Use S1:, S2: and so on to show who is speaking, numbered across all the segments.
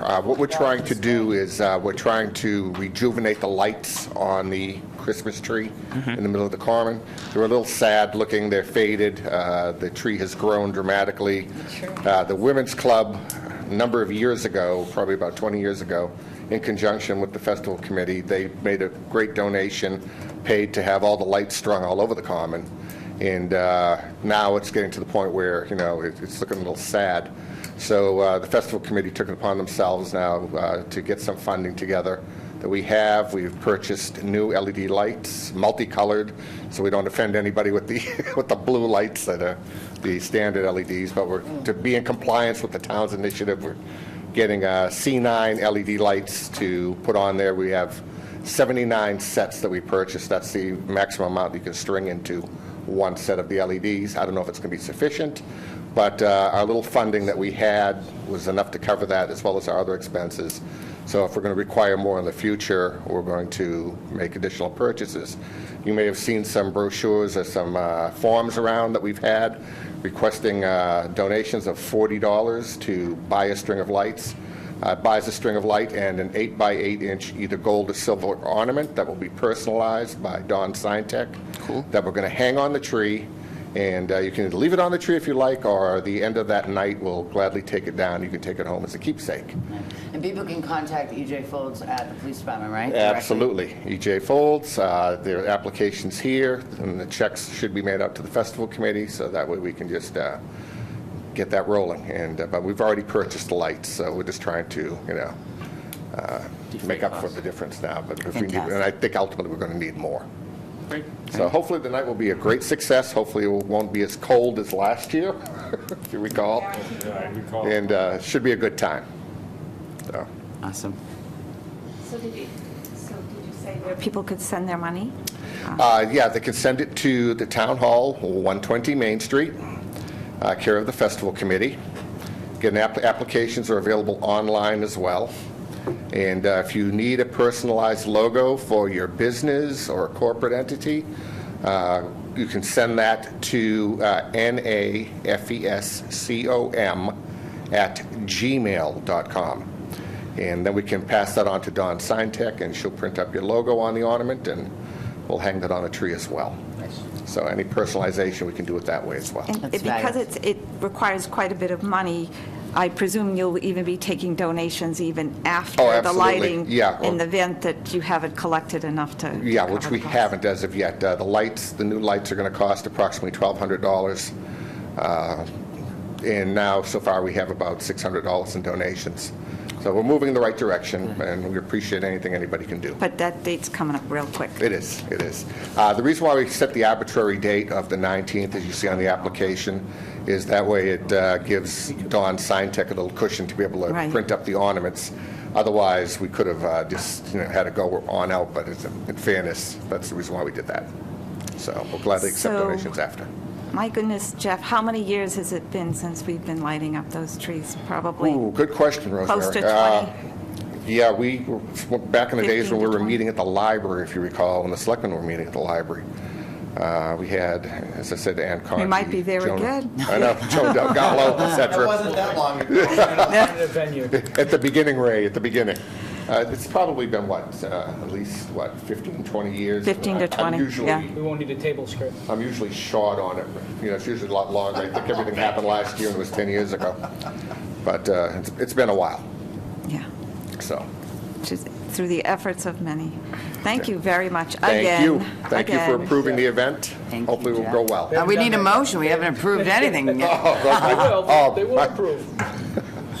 S1: Uh, What we're trying to do is, uh, we're trying to rejuvenate the lights on the Christmas tree in the middle of the Carmen. They're a little sad looking, they're faded, uh, the tree has grown dramatically. Uh, The Women's Club, a number of years ago, probably about 20 years ago, in conjunction with the festival committee, they made a great donation, paid to have all the lights strung all over the Common. And uh, now it's getting to the point where, you know, it- it's looking a little sad. So uh, the festival committee took it upon themselves now uh, to get some funding together that we have. We've purchased new LED lights, multicolored, so we don't offend anybody with the, with the blue lights that are the standard LEDs. But we're, to be in compliance with the town's initiative, we're getting uh, C9 LED lights to put on there. We have 79 sets that we purchased. That's the maximum amount you can string into one set of the LEDs. I don't know if it's going to be sufficient, but uh, our little funding that we had was enough to cover that, as well as our other expenses. So if we're going to require more in the future, we're going to make additional purchases. You may have seen some brochures or some uh, forms around that we've had requesting uh, donations of $40 to buy a string of lights. Uh, Buys a string of light and an eight by eight inch either gold or silver ornament that will be personalized by Don Scientech. Cool. That we're going to hang on the tree, and uh, you can either leave it on the tree if you like, or the end of that night, we'll gladly take it down. You can take it home as a keepsake.
S2: And people can contact EJ Folds at the police department, right? Directly?
S1: Absolutely. EJ Folds, uh, their application's here, and the checks should be made out to the festival committee, so that way we can just uh, get that rolling. And, uh, but we've already purchased the lights, so we're just trying to, you know, uh, make up for the difference now. But if we need, and I think ultimately we're going to need more.
S3: Great.
S1: So hopefully the night will be a great success. Hopefully it won't be as cold as last year, if you recall. And uh, should be a good time. So,
S3: Awesome.
S4: So did you, so did you say where people could send their money?
S1: uh, Yeah, they can send it to the Town Hall, 120 Main Street, uh, care of the Festival Committee. Again, app- applications are available online as well. And uh, if you need a personalized logo for your business or corporate entity, uh, you can send that to uh, E nafescom at gmail.com. And then we can pass that on to Dawn Signtech, and she'll print up your logo on the ornament, and we'll hang that on a tree as well. So any personalization, we can do it that way as well.
S4: And
S2: That's
S4: it- because
S2: fabulous.
S4: it's, it requires quite a bit of money, I presume you'll even be taking donations even
S1: Oh,
S4: after the
S1: absolutely.
S4: lighting?
S1: Yeah. oh.
S4: In the event that you haven't collected enough to? to
S1: Yeah, which
S4: cover
S1: we
S4: the cost.
S1: haven't as of yet. Uh, The lights, the new lights are going to cost approximately $1,200. uh, And now, so far, we have about $600 in donations. So we're moving in the right direction, and we appreciate anything anybody can do.
S4: But that date's coming up real quick.
S1: It is, it is. Uh, The reason why we set the arbitrary date of the 19th, as you see on the application, is that way it uh, gives Dawn Signtech a little cushion to be able to
S4: Right.
S1: print up the ornaments. Otherwise, we could have uh, just, you know, had to go on out, but it's- in fairness, that's the reason why we did that. So we'll gladly accept
S4: So-
S1: donations after.
S4: My goodness, Jeff, how many years has it been since we've been lighting up those trees? Probably
S1: Ooh, good question, Rosemary.
S4: close to
S1: Uh,
S4: 20.
S1: Yeah, we, were- back in the days when we
S4: 15 to
S1: were
S4: 20.
S1: meeting at the library, if you recall, when the selectmen were meeting at the library, uh, we had, as I said, Ann Conti.
S4: might be very
S1: Joan-
S4: good.
S1: I know, Joan Delgado, et
S5: That
S1: cetera.
S5: wasn't that long ago. Alternative venue.
S1: At the beginning, Ray, at the beginning. Uh, It's probably been, what, uh, at least, what, 15, 20 years?
S4: 15 to
S1: I'm
S4: 20,
S1: usually-
S4: yeah.
S5: We won't need a table script.
S1: I'm usually short on it, you know, it's usually a lot longer. I think everything happened last year and it was 10 years ago. But uh, it's- it's been a while,
S4: Yeah,
S1: so.
S4: just through the efforts of many. Thank you very much again.
S1: Thank you. Thank you for
S4: again.
S1: approving the event.
S2: Thank you,
S1: Hopefully it will
S2: Jack.
S1: go well.
S2: Uh, We need a motion, we haven't approved anything yet.
S5: They will, they will
S1: Oh, my-
S5: approve.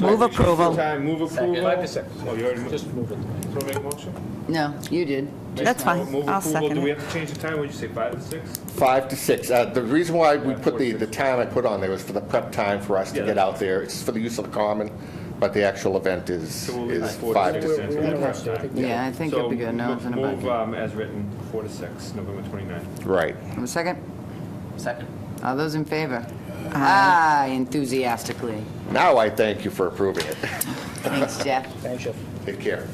S4: Move approval.
S6: Time, move approval.
S5: Five percent.
S6: Oh, you already moved.
S5: Just move it.
S6: So make a motion?
S2: No, you did.
S4: That's fine,
S6: Move
S4: I'll
S6: approval, do
S4: second
S6: we
S4: it.
S6: have to change the time? What'd you say, five to six?
S1: Five to six. Uh, The reason why we put the, the time I put on there was for the prep time for us to
S6: Yeah.
S1: get out there. It's for the use of the common, but the actual event is,
S6: So we'll leave
S1: is
S6: it four
S1: five
S6: to
S1: to
S6: six.
S1: six.
S6: We'll leave it
S5: Yeah.
S6: five.
S2: Yeah, I think it'd be good, no,
S6: So
S2: it's in a
S6: move,
S2: bucket.
S6: um, as written, four to six, November 29th.
S1: Right.
S2: Have a second? Second. All those in favor? Aye, enthusiastically.
S1: Now I thank you for approving it.
S2: Thanks, Jeff.
S5: Thanks, Jeff.
S1: Take care.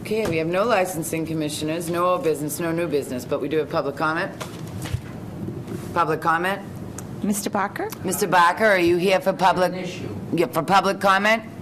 S2: Okay, we have no licensing commissioners, no old business, no new business, but we do have public comment. Public comment?
S4: Mr. Barker?
S2: Mr. Barker, are you here for public? Yeah, for public comment?